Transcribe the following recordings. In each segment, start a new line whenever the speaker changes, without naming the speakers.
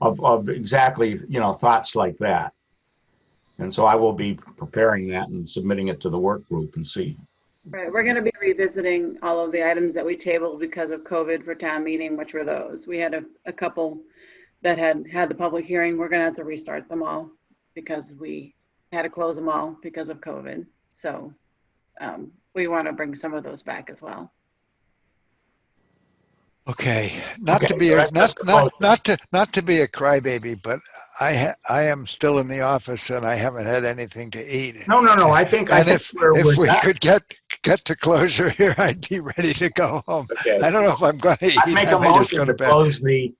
of, of exactly, you know, thoughts like that. And so I will be preparing that and submitting it to the work group and see.
Right, we're going to be revisiting all of the items that we tabled because of COVID for town meeting, which were those. We had a, a couple that had had the public hearing. We're going to have to restart them all because we had to close them all because of COVID. So um, we want to bring some of those back as well.
Okay, not to
Okay,
be,
so
a
that's- that's
not,
the
not,
motion.
not to, not to be a crybaby, but I, ha- I am still in the office and I haven't had anything to eat.
No, no, no, I think, I
And
think
if,
we're,
if
we're
we
not-
could get, get to closure here, I'd be ready to go home.
okay.
I don't know if I'm gonna eat.
I'd make
I
a
may just go
motion to
bed.
close the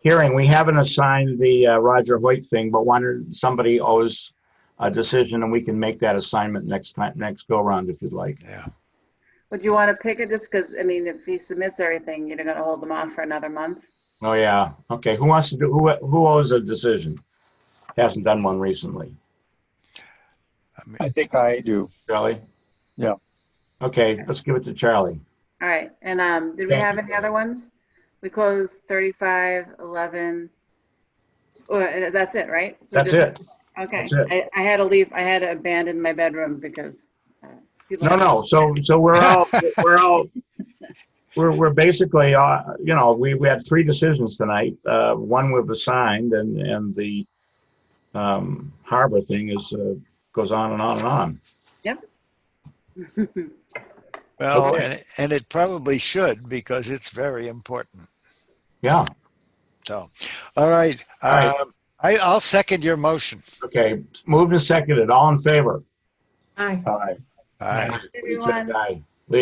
hearing. We haven't assigned the uh, Roger Hoyt thing, but one, somebody owes a decision and we can make that assignment next time, next go round if you'd like.
Yeah,
Would you want to pick it just because, I mean, if he submits everything, you're going to hold them off for another month?
Oh, yeah. Okay, who wants to do, who, who owes a decision? Hasn't done one recently.
I mean,
I think I do.
Charlie?
Yeah.
Okay, let's give it to Charlie.
All right, and um, did we
Thank
have
you.
any other ones? We closed 35, 11, or, uh, that's it, right? So
That's
just-
it.
Okay,
That's it.
I, I had to leave, I had to abandon my bedroom because. uh, people-
No, no, so, so we're all, we're all, we're, we're basically, uh, you know, we, we had three decisions tonight. Uh, one we've assigned and, and the, um, harbor thing is, uh, goes on and on and on.
Well,
Okay.
and, and it probably should because it's very important.
Yeah,
So, all right.
All right.
Um, I, I'll second your motion.
okay, moved and seconded, all in favor?
Aye.
Aye.
Aye.
Richard,
Everyone,
aye.